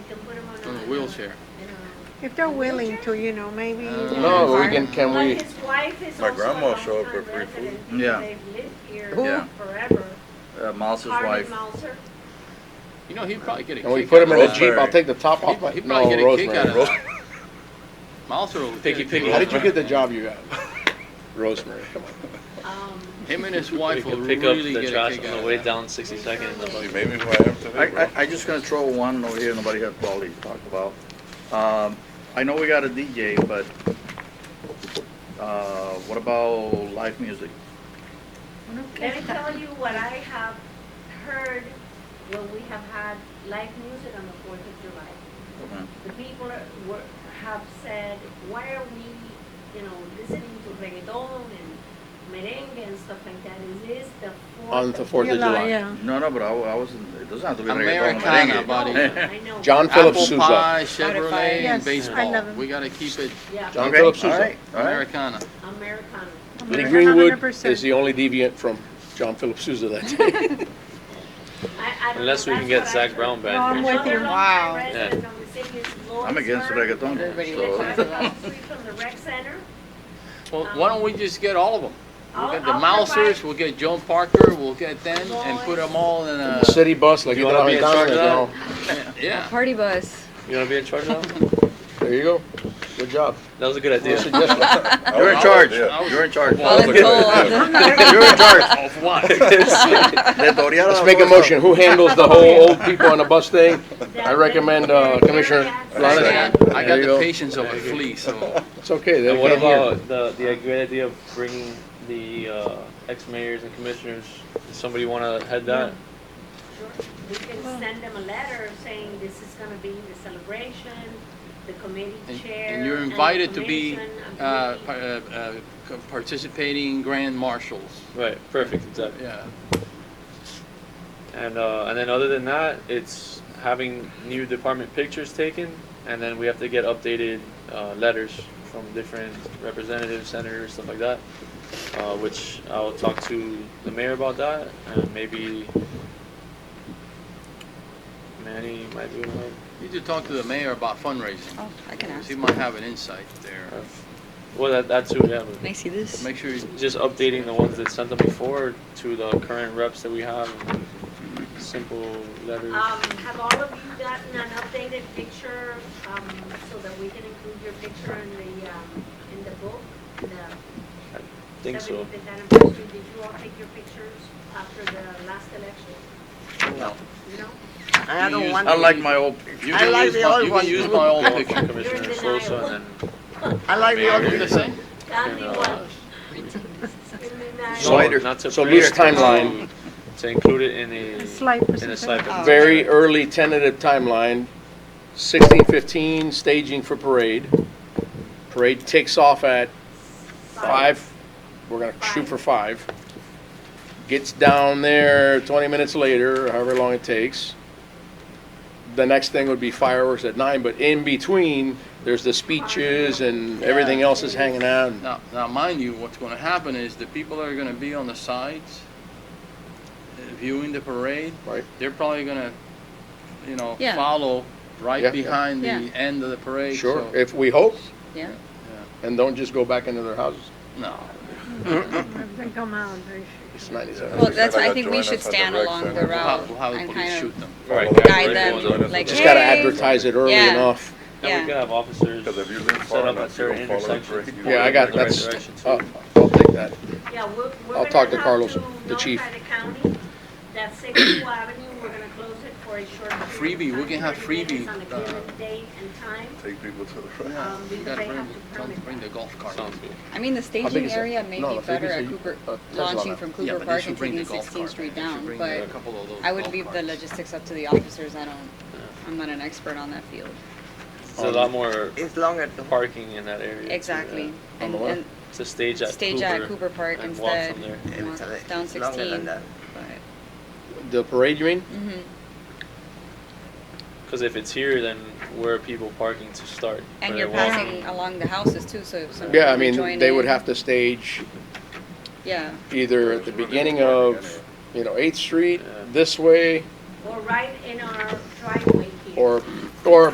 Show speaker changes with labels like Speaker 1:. Speaker 1: wheelchair.
Speaker 2: If they're willing to, you know, maybe.
Speaker 3: Uh, No, we can, can
Speaker 4: But
Speaker 3: we,
Speaker 4: his wife is
Speaker 5: My
Speaker 4: also a
Speaker 5: grandma showed up
Speaker 4: longtime
Speaker 5: for free
Speaker 4: resident.
Speaker 5: food.
Speaker 6: Yeah.
Speaker 4: They've lived
Speaker 2: Who?
Speaker 4: here forever.
Speaker 6: Uh, Miles's
Speaker 4: Harvey
Speaker 6: wife.
Speaker 4: Meltzer.
Speaker 1: You know, he'd probably get a
Speaker 3: and we
Speaker 1: kick
Speaker 3: put
Speaker 1: out
Speaker 3: him in a
Speaker 1: of
Speaker 3: Jeep, I'll take the top off.
Speaker 1: He'd- he'd
Speaker 3: No,
Speaker 1: probably get a kick out of
Speaker 3: Rosemary.
Speaker 1: that. Miles will get a kick
Speaker 3: How
Speaker 1: out
Speaker 3: did
Speaker 1: of
Speaker 3: you
Speaker 1: it.
Speaker 3: get the job you got? Rosemary, come on.
Speaker 4: Um,
Speaker 1: Him and his
Speaker 7: We
Speaker 1: wife will
Speaker 7: can pick up
Speaker 1: really
Speaker 7: the
Speaker 1: get a
Speaker 7: trash
Speaker 1: kick
Speaker 7: on
Speaker 1: out
Speaker 7: the
Speaker 1: of
Speaker 7: way
Speaker 1: that.
Speaker 7: down 62nd in the
Speaker 5: See,
Speaker 7: bus.
Speaker 5: maybe who I am
Speaker 6: I,
Speaker 5: today, bro.
Speaker 6: I, I just gonna throw one over here, nobody has quality to talk about. Um, I know we got a DJ, but, uh, what about live music?
Speaker 4: Let me tell you what I have heard when we have had live music on the Fourth of July. The people are- were, have said, why are we, you know, listening to reggaeton and merengue and stuff like that? It is the Fourth.
Speaker 3: On the
Speaker 4: of-
Speaker 3: Fourth of July.
Speaker 2: Yeah,
Speaker 6: No, no, but I, I wasn't, it doesn't have to be reggaeton or
Speaker 1: Americana,
Speaker 6: merengue.
Speaker 1: buddy.
Speaker 4: No, I know.
Speaker 3: John Philip
Speaker 1: Apple
Speaker 3: Sousa.
Speaker 1: pie, Chevrolet, and
Speaker 2: Yes, I love
Speaker 1: baseball.
Speaker 2: him.
Speaker 1: We gotta keep it
Speaker 4: Yeah,
Speaker 3: John
Speaker 6: Okay,
Speaker 3: Philip Sousa.
Speaker 6: all right, all right.
Speaker 1: Americana.
Speaker 4: Americana.
Speaker 3: Lee
Speaker 2: America,
Speaker 3: Greenwood
Speaker 2: 100%.
Speaker 3: is the only deviant from John Philip Sousa that day.
Speaker 4: I- I don't know,
Speaker 7: Unless we
Speaker 4: that's
Speaker 7: can get
Speaker 4: what I
Speaker 7: Zach
Speaker 4: heard.
Speaker 7: Brown
Speaker 2: No, I'm
Speaker 7: back.
Speaker 4: Another
Speaker 2: with you.
Speaker 4: longtime
Speaker 8: Wow.
Speaker 4: resident of the city is
Speaker 6: I'm against
Speaker 4: Lawrenceburg. She lives right
Speaker 6: reggaeton, so.
Speaker 4: across the street from the rec center.
Speaker 1: Well, why don't we just get all of them? We'll
Speaker 4: I'll-
Speaker 1: get the
Speaker 4: I'll
Speaker 1: Mousers,
Speaker 4: provide-
Speaker 1: we'll get Joan Parker, we'll get them and put them all in a,
Speaker 3: City bus, like
Speaker 7: You
Speaker 3: you
Speaker 7: wanna
Speaker 3: know,
Speaker 7: be in charge of that?
Speaker 3: down.
Speaker 1: yeah.
Speaker 8: Party bus.
Speaker 7: You wanna be in charge now?
Speaker 3: There you go. Good job.
Speaker 7: That was a good
Speaker 3: Good
Speaker 7: idea.
Speaker 3: suggestion.
Speaker 5: I
Speaker 6: You're in
Speaker 5: was-
Speaker 6: charge,
Speaker 5: yeah.
Speaker 6: you're in charge.
Speaker 1: Well,
Speaker 6: You're in charge.
Speaker 1: Of what?
Speaker 6: Let Doriana
Speaker 3: Let's make a
Speaker 6: know.
Speaker 3: motion. Who handles the whole old people on the bus thing? I
Speaker 4: That-
Speaker 3: recommend, uh,
Speaker 4: that-
Speaker 3: Commissioner
Speaker 4: that's-
Speaker 1: I
Speaker 3: Flanagan.
Speaker 1: got- I
Speaker 3: There
Speaker 1: got
Speaker 3: you
Speaker 1: the
Speaker 3: go.
Speaker 1: patience of a flea, so
Speaker 3: It's okay. They
Speaker 7: And what
Speaker 3: can't hear.
Speaker 7: about the, the great idea of bringing the, uh, ex-mayors and commissioners? Does somebody wanna head that?
Speaker 4: Sure. We can
Speaker 2: Oh.
Speaker 4: send them a letter saying this is gonna be the celebration, the committee
Speaker 1: And-
Speaker 4: chair.
Speaker 1: and you're
Speaker 4: the
Speaker 1: invited to be,
Speaker 4: commission, and
Speaker 1: uh,
Speaker 4: committee.
Speaker 1: par- uh, uh, co- participating grand marshals.
Speaker 7: Right, perfect, exactly.
Speaker 1: Yeah.
Speaker 7: And uh, and then other than that, it's having new department pictures taken, and then we have to get updated uh, letters from different representatives, senators, stuff like that. Uh, which I'll talk to the mayor about that, and maybe Manny might be able to help.
Speaker 1: You should talk to the mayor about fundraising.
Speaker 8: Oh, I can ask.
Speaker 1: He might have an insight there.
Speaker 7: Uh, Well, that that too, yeah.
Speaker 8: Can I
Speaker 7: But
Speaker 8: see this?
Speaker 1: Make sure you
Speaker 7: just updating the ones that sent them before to the current reps that we have. Simple letters.
Speaker 4: Um, have all of you gotten an updated picture, um, so that we can include your picture in the, um, in the book? the
Speaker 7: think so.
Speaker 4: 75th anniversary? Did you all take your pictures after the last election?
Speaker 1: No.
Speaker 4: No?
Speaker 1: I don't want
Speaker 6: I like my old
Speaker 1: You
Speaker 8: I
Speaker 1: can
Speaker 8: like
Speaker 1: use
Speaker 8: the
Speaker 1: my-
Speaker 8: old
Speaker 1: You can
Speaker 8: one.
Speaker 1: use my old picture.
Speaker 7: Commissioner
Speaker 4: You're in
Speaker 7: Sosa,
Speaker 4: denial.
Speaker 7: and then
Speaker 8: I like the
Speaker 1: Are you the same?
Speaker 4: That'd be
Speaker 7: uh,
Speaker 4: one. Give me that.
Speaker 3: So- Slider.
Speaker 7: Not to
Speaker 3: So
Speaker 7: prepare,
Speaker 3: loose timeline.
Speaker 7: to- To include it in a,
Speaker 2: A slide
Speaker 7: in a
Speaker 2: presentation.
Speaker 7: slide.
Speaker 8: Um,
Speaker 7: presentation.
Speaker 3: Very early tentative timeline, sixteen fifteen, staging for parade. Parade takes off at five, we're gonna shoot for five. Gets down there twenty minutes later, or however long it takes. The next thing would be fireworks at nine, but in between, there's the speeches and everything else is hanging out.
Speaker 1: Now, now mind you, what's gonna happen is the people that are gonna be on the sides uh, viewing the parade,
Speaker 3: Right.
Speaker 1: they're probably gonna, you know,
Speaker 8: Yeah.
Speaker 1: follow
Speaker 3: Yeah,
Speaker 1: right
Speaker 3: yeah.
Speaker 1: behind the
Speaker 8: Yeah.
Speaker 1: end of the parade.
Speaker 3: Sure,
Speaker 1: so-
Speaker 3: if we hope,
Speaker 8: Yeah.
Speaker 3: and don't just go back into their houses.
Speaker 1: No.
Speaker 2: If they come out, they
Speaker 3: It's ninety-seven.
Speaker 8: Well, that's,
Speaker 5: gotta
Speaker 8: I think we
Speaker 5: join
Speaker 8: should
Speaker 5: us at the
Speaker 8: stand
Speaker 5: rec
Speaker 8: along the
Speaker 5: center.
Speaker 1: We'll have,
Speaker 8: route Um,
Speaker 1: we'll have the
Speaker 8: and
Speaker 1: police
Speaker 8: kind
Speaker 1: shoot
Speaker 8: of,
Speaker 1: them.
Speaker 7: Right,
Speaker 8: guide
Speaker 7: right,
Speaker 8: them,
Speaker 7: well, the-
Speaker 8: like,
Speaker 3: Just gotta
Speaker 8: Hey.
Speaker 3: advertise it early
Speaker 8: Yeah.
Speaker 3: enough.
Speaker 7: And we could
Speaker 8: yeah.
Speaker 7: have officers
Speaker 5: Because if you live
Speaker 7: set
Speaker 5: far
Speaker 7: up at
Speaker 5: enough, you
Speaker 7: certain
Speaker 5: don't follow the
Speaker 7: intersections.
Speaker 5: parade.
Speaker 7: pointing
Speaker 3: Yeah, I
Speaker 7: in
Speaker 3: got-
Speaker 7: the right
Speaker 3: that's-
Speaker 7: direction, too.
Speaker 3: Oh, I'll take that.
Speaker 4: Yeah, we're, we're
Speaker 3: I'll
Speaker 4: gonna
Speaker 3: talk to
Speaker 4: have
Speaker 3: Carlos,
Speaker 4: to
Speaker 3: the chief.
Speaker 4: notify the county that Sixth Avenue, we're gonna close it for a short
Speaker 1: Freebie,
Speaker 4: period
Speaker 1: we
Speaker 4: of
Speaker 1: can
Speaker 4: time,
Speaker 1: have
Speaker 4: 30 minutes
Speaker 1: freebie,
Speaker 4: On a
Speaker 1: uh,
Speaker 4: given date and time,
Speaker 5: Take people to the front.
Speaker 4: um,
Speaker 1: You
Speaker 4: because
Speaker 1: gotta
Speaker 4: they
Speaker 1: bring,
Speaker 4: have to
Speaker 1: don't
Speaker 4: permit.
Speaker 1: bring the golf cart.
Speaker 7: Sounds good.
Speaker 8: I mean, the
Speaker 3: big
Speaker 8: staging
Speaker 3: is it?
Speaker 8: area may
Speaker 3: No,
Speaker 8: be
Speaker 3: the
Speaker 8: better
Speaker 3: biggest
Speaker 8: at
Speaker 3: is-
Speaker 8: Cooper,
Speaker 3: uh, Tesla
Speaker 8: launching
Speaker 3: now.
Speaker 8: from
Speaker 1: Yeah,
Speaker 8: Cooper
Speaker 1: but they
Speaker 8: Park
Speaker 1: should
Speaker 8: and
Speaker 1: bring
Speaker 8: taking
Speaker 1: the golf
Speaker 8: Sixteenth
Speaker 1: cart.
Speaker 8: Street
Speaker 1: They should
Speaker 8: down,
Speaker 1: bring
Speaker 8: but
Speaker 1: a couple of those
Speaker 8: I would
Speaker 1: golf
Speaker 8: leave the
Speaker 1: carts.
Speaker 8: logistics up to the officers. I don't, I'm not an expert on that field.
Speaker 7: There's a lot more
Speaker 8: It's longer.
Speaker 7: parking in that area. too,
Speaker 8: Exactly.
Speaker 7: yeah.
Speaker 3: On
Speaker 8: And,
Speaker 3: the what?
Speaker 8: and
Speaker 7: To stage at
Speaker 8: stage at
Speaker 7: Cooper
Speaker 8: Cooper Park
Speaker 7: and walk
Speaker 8: instead.
Speaker 7: from there.
Speaker 8: Walk Down sixteen.
Speaker 3: The parade, you mean?
Speaker 8: Mm-hmm.
Speaker 7: Because if it's here, then where are people parking to start? Where
Speaker 8: And you're
Speaker 7: they walk.
Speaker 8: passing along the houses too, so if somebody.
Speaker 3: Yeah, I
Speaker 8: would
Speaker 3: mean,
Speaker 8: join
Speaker 3: they would
Speaker 8: in-
Speaker 3: have to stage
Speaker 8: Yeah,
Speaker 3: either at the beginning of, you know, Eighth Street, this way,
Speaker 4: Or right in our driveway here.
Speaker 3: or, or